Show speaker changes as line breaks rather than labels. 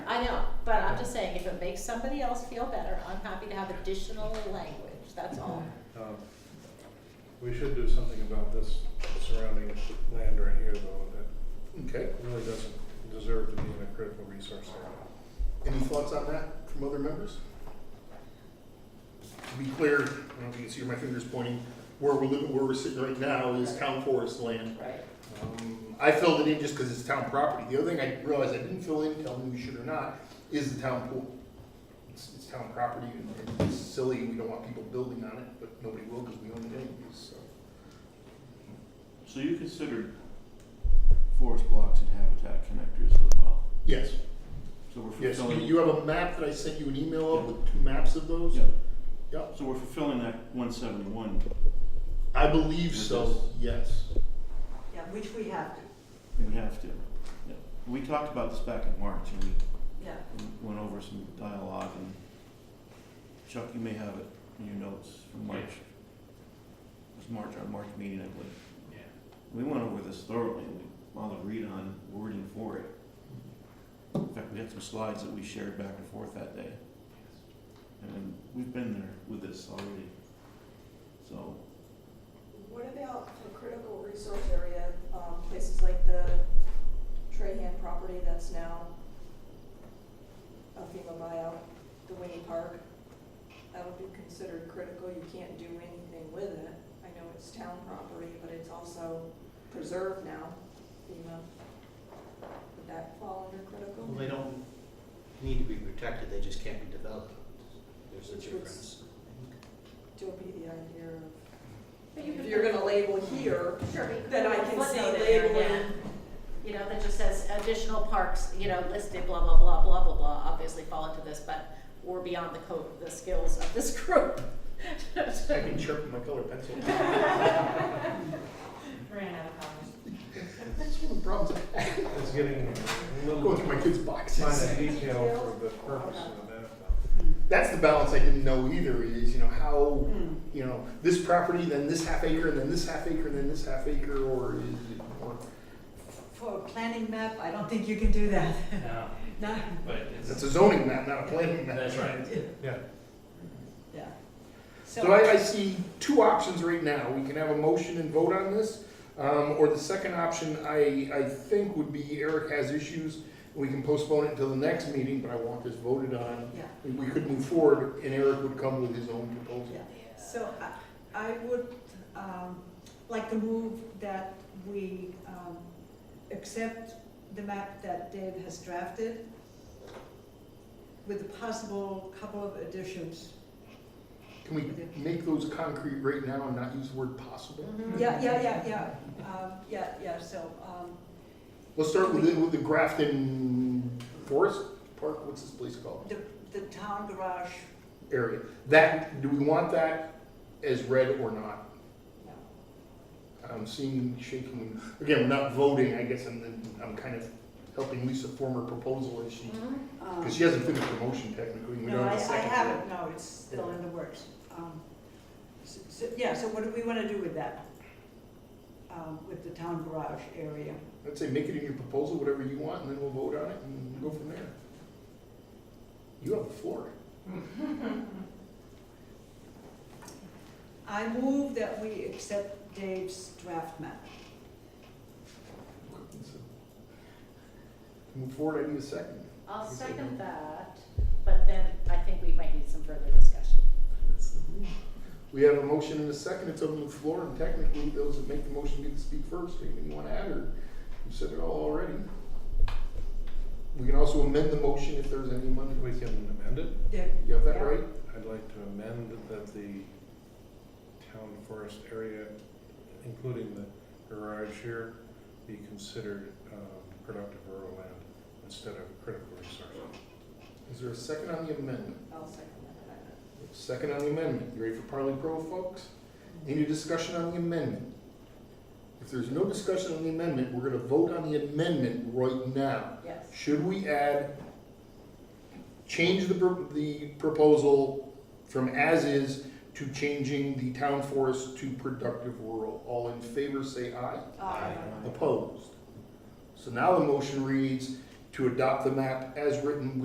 I know, but I'm just saying, if it makes somebody else feel better, I'm happy to have additional language, that's all.
Um, We should do something about this surrounding land right here though, that
Okay,
really doesn't deserve to be in a critical resource area.
any thoughts on that from other members? To be clear, I don't know if you can see where my finger's pointing, where we're living, where we're sitting right now is town forest land.
Right.
Um, I filled it in just because it's town property. The other thing I realized I didn't fill in, tell me we should or not, is the town pool. It's, it's town property and it's silly, we don't want people building on it, but nobody will because we own it anyways, so.
So you considered forest blocks and habitat connectors as well?
Yes,
So we're
yes, you-
fulfilling,
you have a map that I sent you an email of with two maps of those?
Yeah.
Yep,
so we're fulfilling that one seventy-one.
I believe so, yes.
Yeah, which we have to,
We have to. Yeah. We talked about this back in March and we
yeah.
we went over some dialogue and Chuck, you may have it in your notes from March. It was March, our March meeting, I believe. We went over this thoroughly and we all agreed on wording for it. In fact, we had some slides that we shared back and forth that day. And we've been there with this already. So,
What about for critical resource area, um, places like the Trahan property that's now a FEMA buyout, the Winnie Park? That would be considered critical, you can't do anything with it. I know it's town property, but it's also preserved now, FEMA. Would that fall under critical?
Well, they don't need to be protected, they just can't be developed. There's a
Which was-
difference.
To be the idea of,
But you
if
could-
you're gonna label here,
Sure, but you could
then I
put a
can see
footnote in there,
labeling.
yeah. You know, that just says additional parks, you know, listed, blah, blah, blah, blah, blah, blah, obviously fall into this, but we're beyond the code, the skills of this group.
I can sharpen my colored pencil.
Ran out of comments.
That's one of the problems. I
It's getting a
go
little
through my kids'
fine
boxes.
in detail for the purpose of the map. though.
That's the balance I didn't know either is, you know, how,
Hmm.
you know, this property, then this half acre, and then this half acre, and then this half acre, or is it more?
For a planning map, I don't think you can do that.
No,
No,
but it's,
That's a zoning map, not a planning map.
that's right.
Yeah,
yeah.
So I, I see two options right now. We can have a motion and vote on this. Um, or the second option, I, I think would be Eric has issues. We can postpone it until the next meeting, but I want this voted on.
Yeah,
We- We could move forward and Eric would come with his own proposal.
yeah.
So I, I would, um, like to move that we, um, accept the map that Dave has drafted with a possible couple of additions.
Can we make those concrete right now and not use the word possible?
Yeah, yeah, yeah, yeah, um, yeah, yeah, so, um,
Let's start with the, with the Grafton Forest Park, what's this place called?
the, the town garage,
Area. That, do we want that as red or not?
no.
I'm seeing shaking, again, we're not voting, I guess I'm, I'm kind of helping Lisa form her proposal as she,
mm-hmm.
Um,
because she hasn't finished her motion technically, we
No,
don't
I,
have
I
a second. yet.
haven't, no, it's still in the works. Um, s- So, yeah, so what do we wanna do with that? Um, with the town garage area?
I'd say make it in your proposal, whatever you want, and then we'll vote on it and go from there. You have the floor.
I move that we accept Dave's draft map.
Move forward, I need a second.
I'll second that, but then I think we might need some further discussion.
We have a motion and a second, it's open to the floor, and technically, those that make the motion get to speak first, anything you wanna add, or you said it all already. We can also amend the motion if there's any money.
we can amend it.
Dave,
You have that
Yeah.
right?
I'd like to amend that the town forest area, including the garage here, be considered um, productive rural land instead of critical resource.
Is there a second on the amendment?
I'll second that.
Second on the amendment. You ready for Parley Pro, folks? Any discussion on the amendment? If there's no discussion on the amendment, we're gonna vote on the amendment right now.
Yes.
Should we add, change the, pro- the proposal from as-is to changing the town forest to productive rural? All in favor, say aye. Opposed? So now the motion reads to adopt the map as written